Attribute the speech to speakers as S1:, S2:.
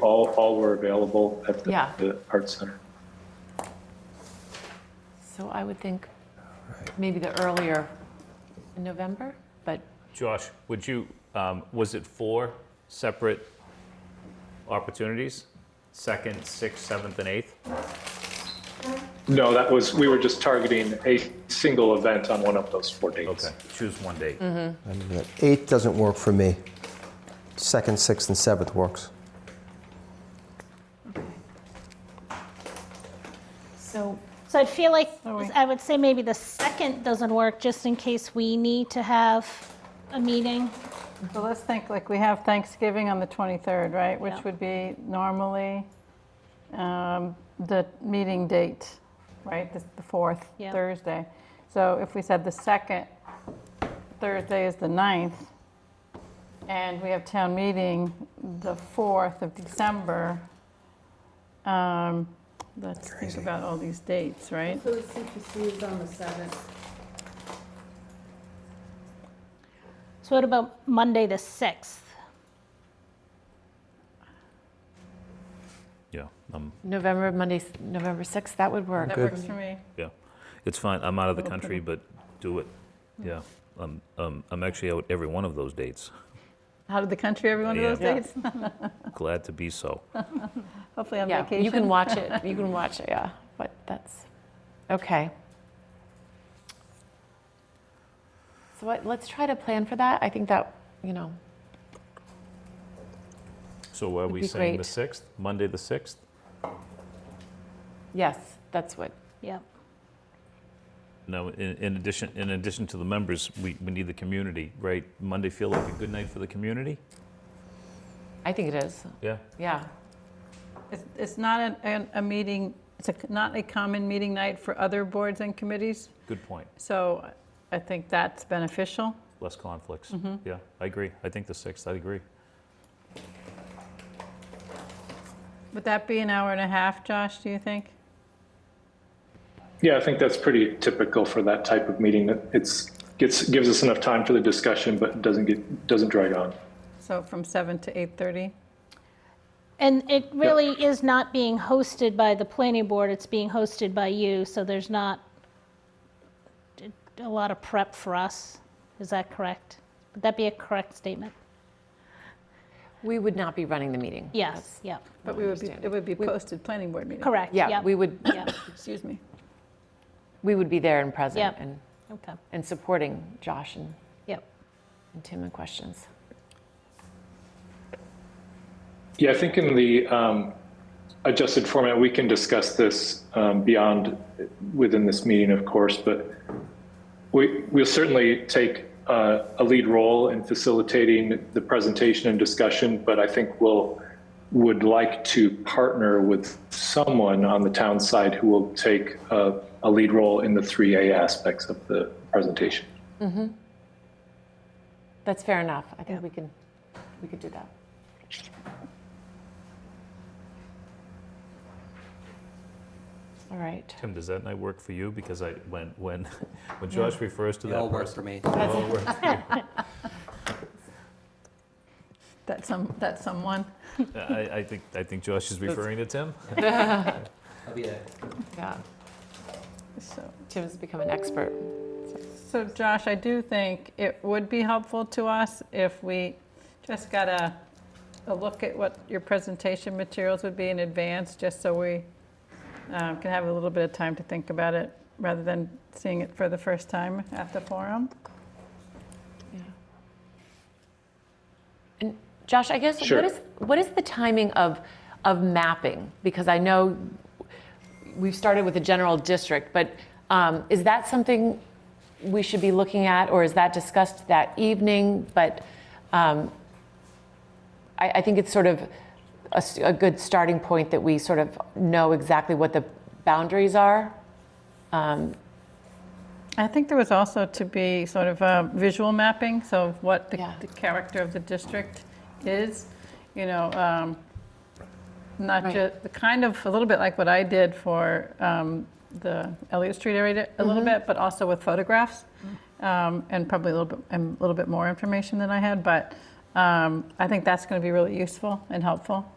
S1: All, all were available at the-
S2: Yeah.
S1: the Art Center.
S2: So I would think maybe the earlier in November, but
S3: Josh, would you, um, was it four separate opportunities? Second, sixth, seventh, and eighth?
S1: No, that was, we were just targeting a single event on one of those four dates.
S3: Okay, choose one date.
S2: Mm-hmm.
S4: Yeah, Eighth doesn't work for me. Second, sixth, and seventh works.
S2: so
S5: So I feel like,
S2: Sorry.
S5: I would say maybe the second doesn't work, just in case we need to have a meeting.
S6: So let's think, like, we have Thanksgiving on the 23rd, right?
S5: Yeah.
S6: Which would be normally um, the meeting date, right? The the 4th,
S5: Yeah.
S6: Thursday. So if we said the 2nd, Thursday is the 9th, and we have town meeting the 4th of December. um, Let's think about all these dates, right?
S7: So the CPC is on the seventh.
S5: So what about Monday, the 6th?
S3: Yeah, um,
S2: November, Monday, November 6th, that would work.
S6: That works for me.
S3: yeah. It's fine, I'm out of the country, but do it.
S2: Mm-hmm.
S3: Yeah, um, um, I'm actually out every one of those dates.
S6: Out of the country, every one of
S3: Yeah.
S6: those
S2: Yeah.
S6: dates?
S3: Glad to be so.
S6: Hopefully on
S2: Yeah,
S6: vacation.
S2: you can watch it, you can watch it, yeah, but that's, okay. So what- let's try to plan for that. I think that, you know,
S3: So are we
S2: be
S3: saying the
S2: great.
S3: 6th, Monday, the 6th?
S2: yes, that's what,
S5: Yep.
S3: No, in, in addition, in addition to the members, we, we need the community, right? Monday feel like a good night for the community?
S2: I think it is,
S3: Yeah,
S2: yeah.
S6: It's- It's not an- an- a meeting, it's a- not a common meeting night for other boards and committees,
S3: good point.
S6: so I think that's beneficial.
S3: Less conflicts.
S2: Mm-hmm.
S3: Yeah, I agree. I think the 6th, I agree.
S6: Would that be an hour and a half, Josh, do you think?
S1: Yeah, I think that's pretty typical for that type of meeting. That It's, gets, gives us enough time for the discussion, but doesn't get, doesn't drag on.
S6: So from 7 to 8:30?
S5: And it really is not being hosted by the planning board, it's being hosted by you, so there's not a lot of prep for us. Is that correct? Would that be a correct statement?
S2: We would not be running the meeting.
S5: Yes, yep,
S6: But we would be, it would be posted planning board meeting.
S5: correct, yep.
S2: Yeah, we would,
S5: Yep,
S6: Excuse me.
S2: we would be there and present
S5: Yep.
S2: and,
S5: okay,
S2: and supporting Josh and
S5: yep.
S2: and Tim in questions.
S1: Yeah, I think in the um, adjusted format, we can discuss this um, beyond, within this meeting, of course, but we, we'll certainly take uh, a lead role in facilitating the presentation and discussion, but I think we'll, would like to partner with someone on the town side who will take uh, a lead role in the 3A aspects of the presentation.
S2: That's fair enough. I think we can, we could do that. All right.
S3: Tim, does that night work for you? Because I, when, when, when Josh refers to that person.
S4: me.
S3: it all works for you.
S6: That's some, that's someone.
S3: I, I think, I think Josh is referring to Tim.
S4: I'll be there.
S2: Yeah.
S6: So-
S2: Tim's become an expert.
S6: So Josh, I do think it would be helpful to us if we just got a, a look at what your presentation materials would be in advance, just so we um, can have a little bit of time to think about it, rather than seeing it for the first time at the forum.
S2: Yeah. And Josh, I guess
S1: Sure.
S2: what is what is the timing of of mapping? Because I know we've started with the general district, but um, is that something we should be looking at, or is that discussed that evening? But um, I, I think it's sort of a, s- a good starting point that we sort of know exactly what the boundaries are.
S6: I think there was also to be sort of a visual mapping, so of what the
S2: Yeah.
S6: the character of the district is, you know, um, not
S2: Right.
S6: just, the kind of, a little bit like what I did for um, the Elliott Street area a
S2: Mm-hmm.
S6: little bit, but also with photographs, um, and probably a little bit, and a little bit more information than I had, but um, I think that's going to be really useful and helpful.